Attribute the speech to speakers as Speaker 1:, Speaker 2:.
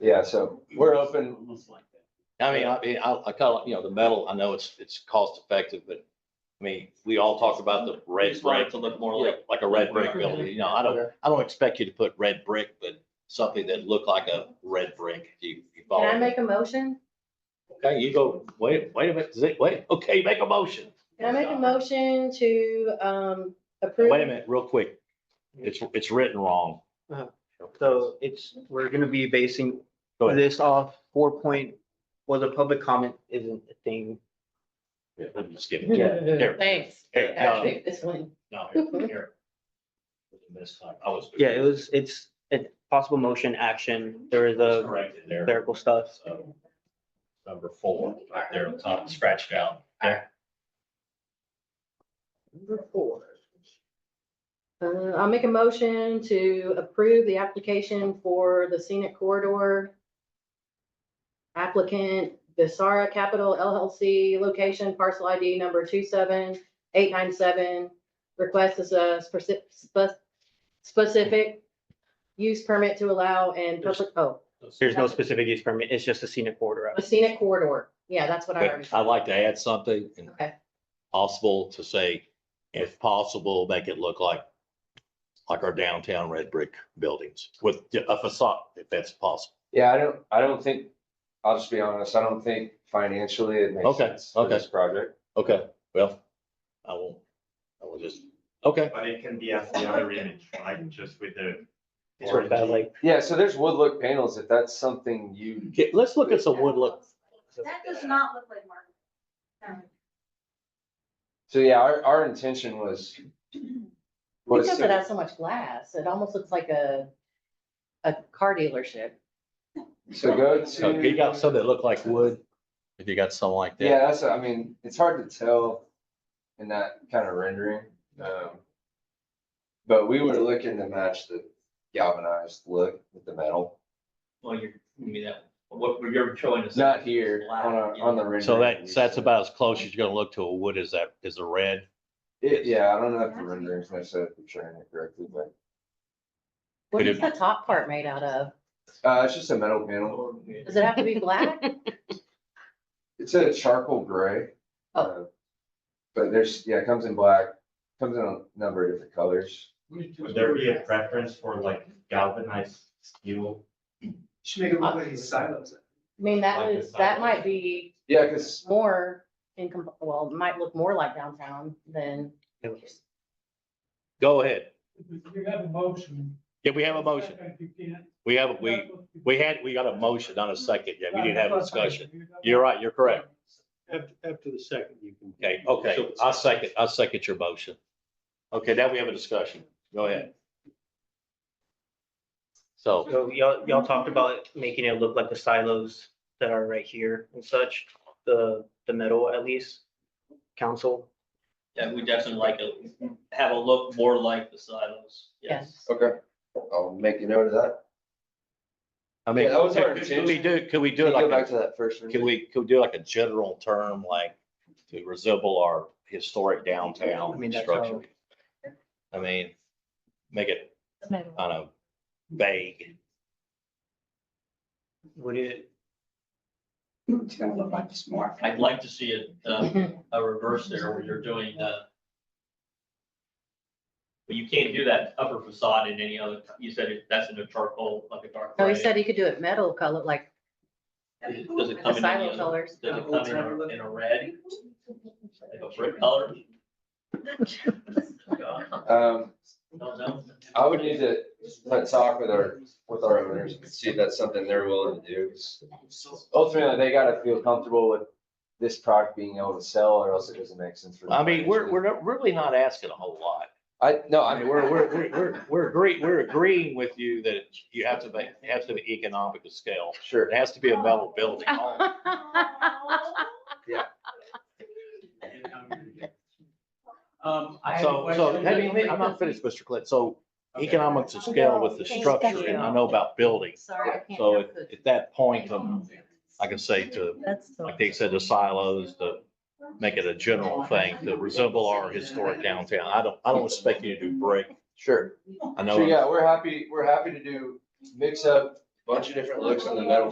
Speaker 1: Yeah, so we're open.
Speaker 2: Almost like that.
Speaker 3: I mean, I mean, I, I call it, you know, the metal, I know it's, it's cost effective, but I mean, we all talk about the red
Speaker 2: Just want it
Speaker 3: brick,
Speaker 2: to look more like.
Speaker 3: like, like a red brick building, you know, I don't, I don't expect you to put red brick, but something that looked like a red brick, if you, you
Speaker 4: Can I
Speaker 3: follow. me.
Speaker 4: make a motion?
Speaker 3: Okay, you go, wait, wait a minute, is it- wait, okay, make a motion.
Speaker 4: Can I make a motion to, um, approve?
Speaker 3: Wait a minute, real quick. It's, it's written wrong.
Speaker 5: So it's, we're gonna be basing
Speaker 3: Go ahead.
Speaker 5: this off four point, well, the public comment isn't a thing.
Speaker 3: Yeah, Let me just give it to you. Here,
Speaker 4: Thanks.
Speaker 3: Here, no.
Speaker 4: I'll take this one.
Speaker 3: no, here, here. This time, I was.
Speaker 5: Yeah, it was, it's a possible motion action. There is
Speaker 1: uh,
Speaker 5: a
Speaker 3: Corrected there.
Speaker 5: clerical stuff.
Speaker 3: So, Number four, right there on top, scratched out. There.
Speaker 4: Uh, I'll make a motion to approve the application for the scenic corridor. Applicant Visara Capital LLC, location parcel ID number two seven eight nine seven. Request is a speci- spe- specific use permit to allow and public, oh,
Speaker 5: There's no specific use permit. It's just a scenic border.
Speaker 4: a scenic corridor. Yeah, that's what I already.
Speaker 3: But I'd like to add something and
Speaker 4: Okay,
Speaker 3: possible to say, if possible, make it look like, like our downtown red brick buildings with a facade, if that's possible.
Speaker 1: Yeah, I don't, I don't think, I'll just be honest, I don't think financially it makes
Speaker 3: Okay,
Speaker 1: sense for
Speaker 3: okay.
Speaker 1: this project.
Speaker 3: Okay, well, I will, I will just, okay.
Speaker 6: But it can be as the other image, like just with the.
Speaker 5: It's sort of that, like,
Speaker 1: Yeah, so there's wood look panels, if that's something you,
Speaker 3: Okay, Let's look at some wood look.
Speaker 7: That does not look like Um, marble. No.
Speaker 1: so yeah, our, our intention was. was
Speaker 4: because it
Speaker 1: to-
Speaker 4: has so much glass, it almost looks like a, a car dealership.
Speaker 1: So go
Speaker 3: So
Speaker 1: to.
Speaker 3: if you got some that look like wood, if you got something like
Speaker 1: Yeah,
Speaker 3: that.
Speaker 1: that's, I mean, it's hard to tell in that kind of rendering. um, But we were looking to match the galvanized look with the metal,
Speaker 2: Well, you're, I mean, that, what you're showing us.
Speaker 1: not here on our, on the rendering.
Speaker 3: So that, so that's
Speaker 1: we-
Speaker 3: about as close as you're gonna look to a wood as that, is a red.
Speaker 1: It- Yeah, I don't know if the renderings necessarily portraying it correctly, but
Speaker 4: What
Speaker 3: Could
Speaker 4: is
Speaker 3: it-
Speaker 4: the top part made out of?
Speaker 1: uh, it's just a metal panel.
Speaker 4: Does it have to be black?
Speaker 1: It's a charcoal gray.
Speaker 4: Oh.
Speaker 1: uh, But there's, yeah, it comes in black, comes in a number of different colors.
Speaker 6: Would there be a preference for like galvanized steel?
Speaker 8: Should make it look like he's silos.
Speaker 4: I mean, that
Speaker 6: Like
Speaker 4: was,
Speaker 6: the
Speaker 4: that
Speaker 6: side.
Speaker 4: might be
Speaker 1: Yeah, because
Speaker 4: more in, comp- well, it might look more like downtown than.
Speaker 3: Go ahead.
Speaker 8: You have a motion.
Speaker 3: Yeah, we have a motion.
Speaker 8: You can't.
Speaker 3: We have, we, we had, we got a motion, not a second. Yeah, we didn't have a discussion. You're right, you're correct.
Speaker 8: After, after the second, you can.
Speaker 3: Okay, okay, I second, I second your motion. Okay, now we have a discussion. Go ahead. So,
Speaker 5: so y'all, y'all talked about making it look like the silos that are right here and such, the, the metal at least, council.
Speaker 2: Yeah, we definitely like it, have a look more like the silos, yes.
Speaker 1: Okay, I'll make a note of that.
Speaker 3: I mean,
Speaker 1: Yeah, that was our
Speaker 3: can we do, can we do
Speaker 1: Can
Speaker 3: it
Speaker 1: you Go
Speaker 3: like,
Speaker 1: back
Speaker 3: a-
Speaker 1: to that first. rendering?
Speaker 3: can we, can we do like a general term, like to resemble our historic
Speaker 5: I
Speaker 3: downtown
Speaker 5: mean, that's
Speaker 3: structure? I mean, make it, I don't know, vague.
Speaker 5: Would it,
Speaker 8: It's gonna look like it's more.
Speaker 2: I'd like to see it, uh, a reverse there where you're doing, uh, but you can't do that upper facade in any other, you said it- that's in a charcoal, like a dark.
Speaker 4: No, he
Speaker 2: gray.
Speaker 4: said he could do it metal color, like
Speaker 2: Does it- does it
Speaker 4: the
Speaker 2: come in any
Speaker 4: silo
Speaker 2: other,
Speaker 4: colors.
Speaker 2: does it come in a, in a red, like a brick color? No,
Speaker 1: Um,
Speaker 2: no.
Speaker 1: I would need to let's talk with our, with our owners and see if that's something they're willing to do. 'cause Ultimately, they gotta feel comfortable with this product being able to sell or else it doesn't make sense for. them
Speaker 3: I mean, we're,
Speaker 1: financially.
Speaker 3: we're not- really not asking a whole lot.
Speaker 1: I, no,
Speaker 3: I
Speaker 1: I
Speaker 3: mean,
Speaker 1: mean, we're,
Speaker 3: we're,
Speaker 1: we're,
Speaker 3: we're, we're, we're, we're agreeing, we're agreeing with you that you have to make, it has to be economic at scale.
Speaker 1: sure.
Speaker 3: It has to be a metal building.
Speaker 8: Um, I had a
Speaker 3: So, so,
Speaker 8: question.
Speaker 3: I mean, I'm not finished, Mr. Clit. So economics at scale with the structure and I know about buildings.
Speaker 4: Sorry, I can't.
Speaker 3: So
Speaker 4: have
Speaker 3: at,
Speaker 4: cookies.
Speaker 3: at that point, um, I can say to,
Speaker 4: That's so-
Speaker 3: like they said, the silos, to make it a general thing to resemble our historic downtown. I don't, I don't expect you to do brick.
Speaker 1: Sure. Sure,
Speaker 3: I know,
Speaker 1: yeah, we're happy, we're happy to do mix up bunch of different looks on the metal